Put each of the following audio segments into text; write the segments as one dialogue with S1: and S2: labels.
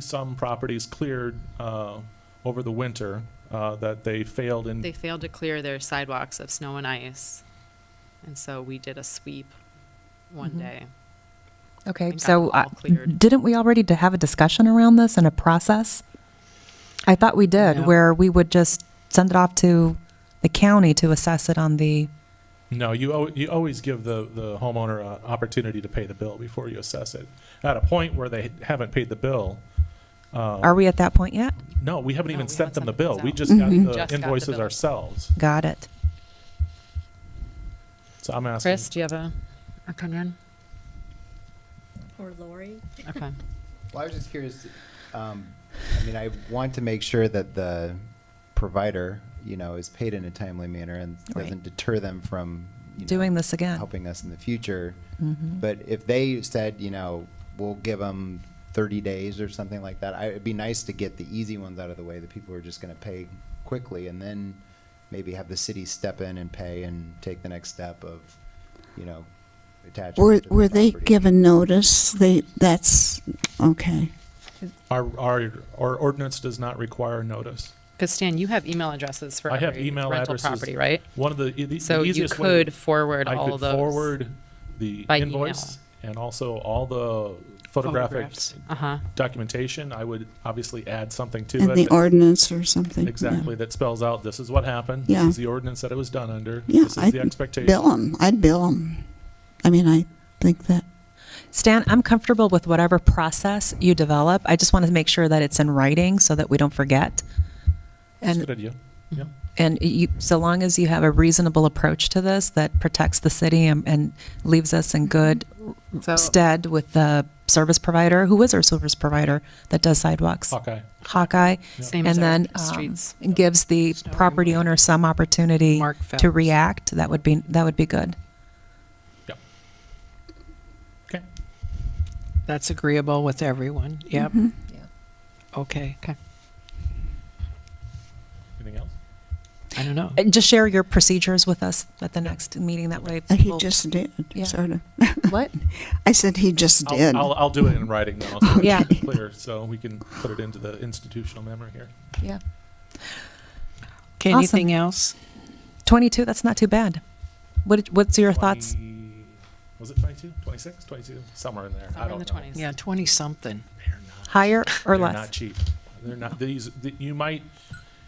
S1: some properties cleared uh, over the winter uh, that they failed in.
S2: They failed to clear their sidewalks of snow and ice. And so we did a sweep one day.
S3: Okay,
S2: got
S3: so
S2: them all
S3: uh,
S2: cleared.
S3: didn't we already to have a discussion around this and a process? I thought we
S2: No.
S3: did, where we would just send it off to the county to assess it on the,
S1: No, you, al- you always give the, the homeowner an opportunity to pay the bill before you assess it. At a point where they haven't paid the bill,
S3: are we at that point yet?
S1: no, we haven't
S2: No,
S1: even
S2: we
S1: sent them the
S2: haven't sent the
S1: bill.
S2: bills
S1: We
S2: out.
S1: just got
S2: Just
S1: the
S2: got the
S1: invoices
S2: bill.
S1: ourselves.
S3: Got it.
S1: So I'm asking.
S2: Chris, do you have a opinion?
S4: Or Lori?
S2: Okay.
S5: Well, I was just curious. Um, I mean, I want to make sure that the provider, you know, is paid in a timely manner and
S3: Right.
S5: doesn't deter them from you know,
S3: Doing this again.
S5: helping us in the future.
S6: Mm-hmm.
S5: But if they said, you know, we'll give them 30 days or something like that, I, it'd be nice to get the easy ones out of the way. The people who are just going to pay quickly, and then maybe have the city step in and pay and take the next step of, you know, attachment.
S6: Were,
S5: to the
S6: were they
S5: property.
S6: given notice? They, that's, okay.
S1: Our, our, our ordinance does not require notice.
S2: Because Stan, you have email addresses for
S1: I have
S2: every
S1: email
S2: rental
S1: addresses.
S2: property, right?
S1: One of the, e- the
S2: So
S1: the
S2: you
S1: easiest way-
S2: could forward
S1: I
S2: all
S1: could
S2: those.
S1: forward the
S2: by
S1: invoice and also all the photographic
S2: Photographs. Uh-huh.
S1: documentation. I would obviously add something to
S6: And
S1: it.
S6: the
S1: that-
S6: ordinance or something. yeah.
S1: Exactly, that spells out, this is what happened. This
S6: Yeah.
S1: is the ordinance that it was done under.
S6: Yeah,
S1: This is
S6: I'd
S1: the expectation.
S6: bill them. I'd bill them. I mean, I think that,
S3: Stan, I'm comfortable with whatever process you develop. I just want to make sure that it's in writing so that we don't forget.
S1: That's a
S3: And
S1: Good idea. Yeah.
S3: And you, so long as you have a reasonable approach to this that protects the city and, and leaves us in good
S2: So-
S3: stead with the service provider, who is our service provider that does sidewalks?
S1: Hawkeye.
S3: Hawkeye.
S2: Same as
S3: And
S2: our
S3: then um,
S2: streets.
S3: gives the
S2: Snow
S3: property
S2: removal.
S3: owner some opportunity
S7: Mark
S3: to
S7: Phelps.
S3: react. That would be, that would be good.
S1: Yeah. Okay.
S7: That's agreeable with everyone. Yep.
S3: Yeah.
S7: Okay.
S2: Okay.
S1: Anything else?
S7: I don't know.
S3: And Uh, just share your procedures with us at the next meeting. That way.
S6: uh, he
S3: people-
S6: just did,
S3: Yeah.
S6: sort of.
S3: What?
S6: I said he just
S1: I'll-
S6: did.
S1: I'll, I'll do it in writing now. so it's
S3: Yeah.
S1: Clear, so we can put it into the institutional memory here.
S3: Yeah.
S7: Okay,
S3: Awesome.
S7: anything else?
S3: 22, that's not too bad. What, did- what's your thoughts?
S1: 20 Was it 22, 26, 22? Somewhere in there. I
S2: Somewhere in
S1: don't
S2: the
S1: know.
S2: 20s.
S7: Yeah, 20 something.
S1: They're not-
S3: Higher
S1: they're
S3: or less?
S1: not cheap. They're not, these, th- you might,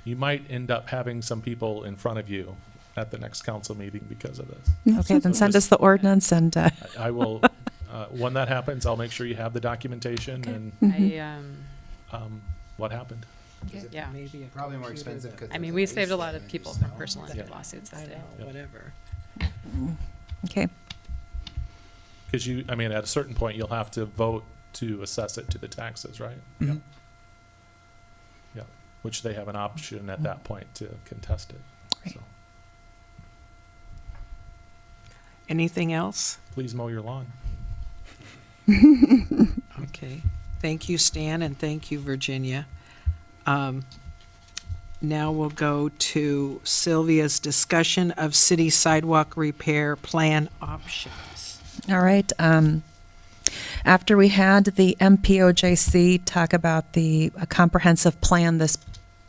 S1: you might end up having some people in front of you at the next council meeting because of this.
S3: Okay, then send us the ordinance and, uh,
S1: I I will, uh, when that happens, I'll make sure you have the documentation and
S2: I, um,
S1: um, what happened.
S2: yeah.
S7: Maybe a
S5: Probably more
S7: computer
S5: expensive.
S7: that-
S5: 'cause
S2: I mean,
S5: there's
S2: we
S5: base
S2: saved a lot
S5: there
S2: of
S5: and
S2: people
S5: just
S2: from
S5: now.
S2: personal
S1: Yeah.
S2: lawsuits
S7: I
S2: that day.
S7: know, whatever.
S3: okay.
S1: Because you, I mean, at a certain point, you'll have to vote to assess it to the taxes, right? Yeah. Yeah, which they have an option at that point to contest it. So
S7: Anything else?
S1: please mow your lawn.
S7: Okay. Thank you, Stan, and thank you, Virginia. Um, Now we'll go to Sylvia's discussion of city sidewalk repair plan options.
S3: All right. Um, after we had the MPOJC talk about the a comprehensive plan this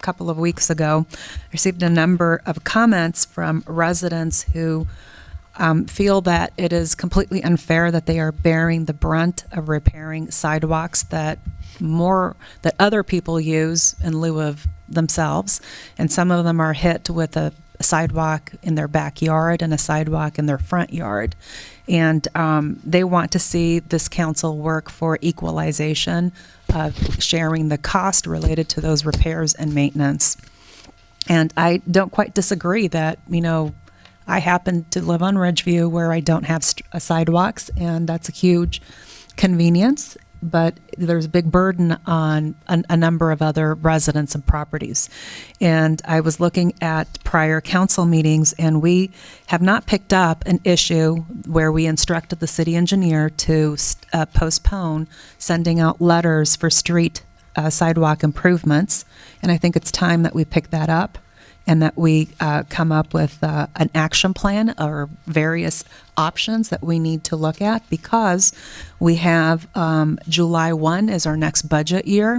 S3: couple of weeks ago, I received a number of comments from residents who um, feel that it is completely unfair that they are bearing the brunt of repairing sidewalks that more that other people use in lieu of themselves, and some of them are hit with a sidewalk in their backyard and a sidewalk in their front yard. And um, they want to see this council work for equalization of sharing the cost related to those repairs and maintenance. And I don't quite disagree that, you know, I happen to live on Ridgeview where I don't have st- uh, sidewalks, and that's a huge convenience. But there's a big burden on a, a number of other residents and properties. And I was looking at prior council meetings, and we have not picked up an issue where we instructed the city engineer to st- uh, postpone sending out letters for street uh, sidewalk improvements. And I think it's time that we pick that up and that we uh, come up with uh, an action plan or various options that we need to look at because we have um, July 1 is our next budget year.